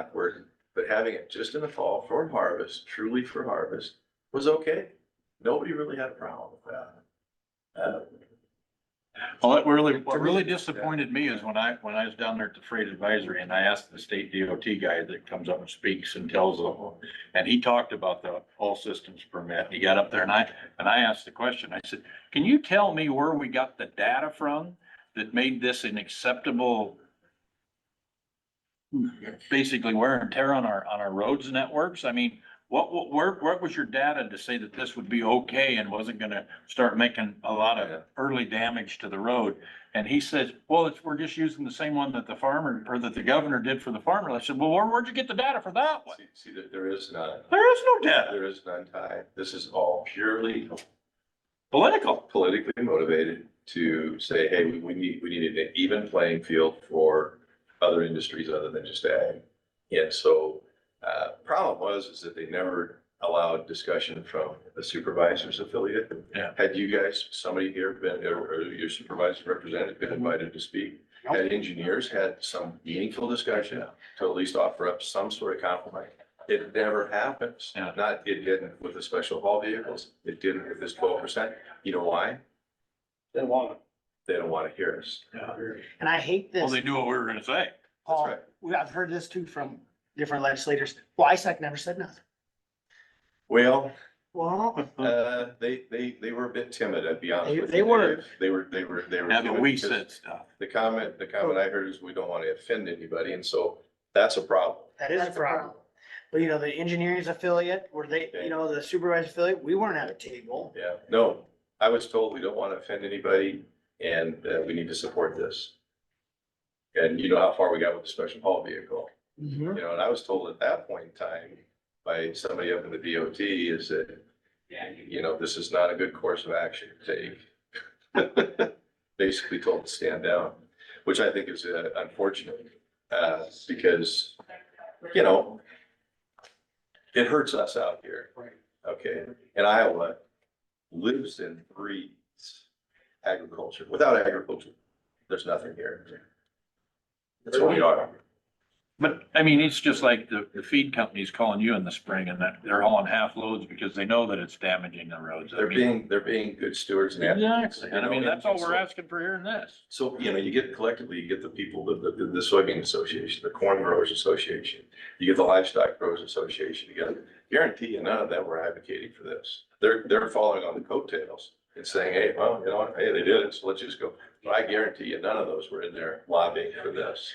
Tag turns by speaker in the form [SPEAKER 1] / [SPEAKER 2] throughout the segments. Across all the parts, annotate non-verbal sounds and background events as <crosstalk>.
[SPEAKER 1] awkward, but having it just in the fall for harvest, truly for harvest, was okay. Nobody really had a problem with that. Uh,
[SPEAKER 2] Well, that really, what really disappointed me is when I, when I was down there at the freight advisory and I asked the state DOT guy that comes up and speaks and tells them. And he talked about the all systems permit. He got up there and I, and I asked the question, I said, can you tell me where we got the data from that made this an acceptable? Basically wear and tear on our, on our roads networks. I mean, what, what, where, what was your data to say that this would be okay and wasn't gonna start making a lot
[SPEAKER 1] Yeah.
[SPEAKER 2] of early damage to the road? And he says, well, it's, we're just using the same one that the farmer, or that the governor did for the farmer. I said, well, where, where'd you get the data for that one?
[SPEAKER 1] See, see, there- there is none,
[SPEAKER 2] There is no data,
[SPEAKER 1] there is none tied. This is all purely
[SPEAKER 2] political.
[SPEAKER 1] politically motivated to say, hey, we, we need, we needed an even playing field for other industries other than just ag. And so, uh, problem was, is that they never allowed discussion from the supervisor's affiliate.
[SPEAKER 2] Yeah.
[SPEAKER 1] Had you guys, somebody here been, or, or your supervisor representative been invited to speak?
[SPEAKER 2] Nope.
[SPEAKER 1] Had engineers had some meaningful discussion to at least offer up some sort of compromise? It never happens.
[SPEAKER 2] Yeah.
[SPEAKER 1] Not, it didn't with the special haul vehicles, it didn't with this twelve percent. You know why?
[SPEAKER 3] They want
[SPEAKER 1] They don't want to hear us.
[SPEAKER 3] And I hate
[SPEAKER 2] Well,
[SPEAKER 3] this,
[SPEAKER 2] they knew what we were gonna say.
[SPEAKER 3] Paul,
[SPEAKER 1] right.
[SPEAKER 3] we, I've heard this too from different legislators, Well, ISAC never said nothing.
[SPEAKER 1] Well,
[SPEAKER 3] Well,
[SPEAKER 1] uh, they, they, they were a bit timid, I'd be honest
[SPEAKER 3] They-
[SPEAKER 1] with you.
[SPEAKER 3] they were.
[SPEAKER 1] Dave. They were, they were, they were.
[SPEAKER 2] Now that
[SPEAKER 1] timid
[SPEAKER 2] we
[SPEAKER 1] because
[SPEAKER 2] said stuff.
[SPEAKER 1] The comment, the comment I heard is we don't want to offend anybody, and so that's a problem.
[SPEAKER 3] that is a problem. But you know, the engineering's affiliate, or they, you know, the supervisor affiliate, we weren't at a table.
[SPEAKER 1] Yeah, no, I was told we don't want to offend anybody and uh, we need to support this. And you know how far we got with the special haul vehicle,
[SPEAKER 3] Mhm.
[SPEAKER 1] you know, and I was told at that point in time by somebody up in the DOT is that, you know, this is not a good course of action to take. <laughs> Basically told to stand down, which I think is uh, unfortunate, uh, because, you know, it hurts us out here.
[SPEAKER 3] Right.
[SPEAKER 1] Okay, and Iowa lives and breathes agriculture. Without agriculture, there's nothing here. That's what we are.
[SPEAKER 2] But, I mean, it's just like the, the feed companies calling you in the spring and that they're hauling half loads because they know that it's damaging the roads. I
[SPEAKER 1] They're
[SPEAKER 2] mean,
[SPEAKER 1] being, they're being good stewards and advocates.
[SPEAKER 2] Exactly. And I mean, that's all we're asking for here in this.
[SPEAKER 1] So, you know, you get collectively, you get the people, the, the, the soybean association, the corn growers association, you get the livestock growers association together. Guarantee you none of them were advocating for this. They're, they're following on the coattails and saying, hey, well, you know, what? hey, they did it, so let's just go. But I guarantee you, none of those were in there lobbying for this.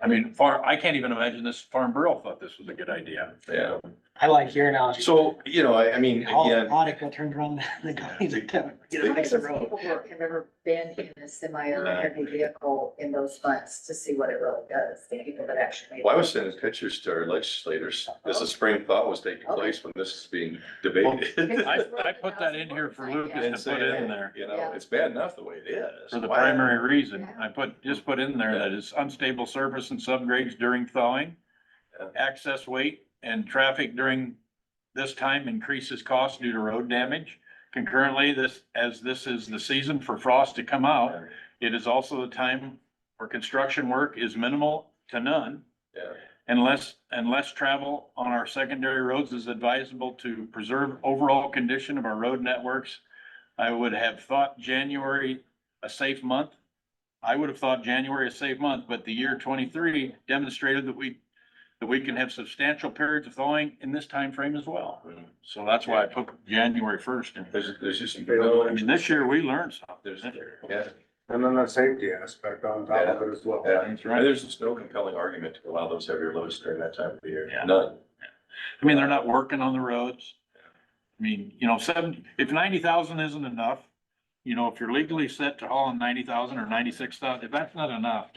[SPEAKER 2] I mean, farm, I can't even imagine this Farm Bureau thought this was a good idea.
[SPEAKER 1] Yeah.
[SPEAKER 3] I like your analogy.
[SPEAKER 1] So, you know, I, I mean,
[SPEAKER 3] All the
[SPEAKER 1] again,
[SPEAKER 3] Monica turned around, <laughs> the guys like, get a
[SPEAKER 4] How many
[SPEAKER 3] fix the
[SPEAKER 4] people
[SPEAKER 3] road.
[SPEAKER 4] who have ever been in a semi or a heavy vehicle in those months to see what it really does, the people that actually.
[SPEAKER 1] well, I was sending pictures to our legislators as the spring thaw was taking place when this is being debated. <laughs>
[SPEAKER 2] I, I put that in here for
[SPEAKER 1] And
[SPEAKER 2] Lucas to
[SPEAKER 1] saying,
[SPEAKER 2] put in there.
[SPEAKER 1] hey, You know, it's bad enough the way it is.
[SPEAKER 2] For the
[SPEAKER 1] Why-
[SPEAKER 2] primary reason, I put, just put in there that it's unstable surface and subgrades during thawing.
[SPEAKER 1] Yeah.
[SPEAKER 2] Access weight and traffic during this time increases cost due to road damage. Concurrently, this, as this is the season for frost to come out,
[SPEAKER 1] Yeah,
[SPEAKER 2] it is also the time where construction work is minimal to none.
[SPEAKER 1] yeah.
[SPEAKER 2] Unless, unless travel on our secondary roads is advisable to preserve overall condition of our road networks. I would have thought January a safe month. I would have thought January a safe month, but the year twenty-three demonstrated that we, that we can have substantial periods of thawing in this time frame as well.
[SPEAKER 1] Mm.
[SPEAKER 2] So that's why I put January first in.
[SPEAKER 1] There's, there's just.
[SPEAKER 2] I mean, this year we learned something.
[SPEAKER 1] There's, yeah,
[SPEAKER 5] And then the safety aspect on top of it as well.
[SPEAKER 1] yeah.
[SPEAKER 2] That's right.
[SPEAKER 1] And there's just no compelling argument to allow those heavier loads during that time of the year.
[SPEAKER 2] Yeah.
[SPEAKER 1] None.
[SPEAKER 2] I mean, they're not working on the roads. I mean, you know, seven, if ninety thousand isn't enough, you know, if you're legally set to haul in ninety thousand or ninety-six thousand, if that's not enough,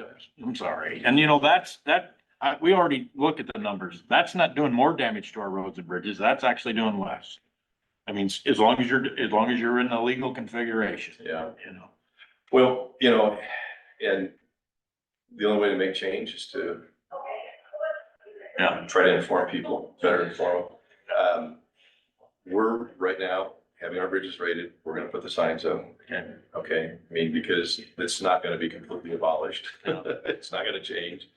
[SPEAKER 2] I'm sorry. And you know, that's, that, I, we already look at the numbers. That's not doing more damage to our roads and bridges. That's actually doing less. I mean, as long as you're, as long as you're in a legal configuration,
[SPEAKER 1] Yeah.
[SPEAKER 2] you know.
[SPEAKER 1] Well, you know, and the only way to make change is to
[SPEAKER 2] Yeah.
[SPEAKER 1] try to inform people, better inform them. Um, We're right now having our bridges rated. We're gonna put the signs up.
[SPEAKER 2] Okay.
[SPEAKER 1] Okay, I mean, because <laughs> it's not gonna be completely abolished.
[SPEAKER 2] No.
[SPEAKER 1] It's not gonna change.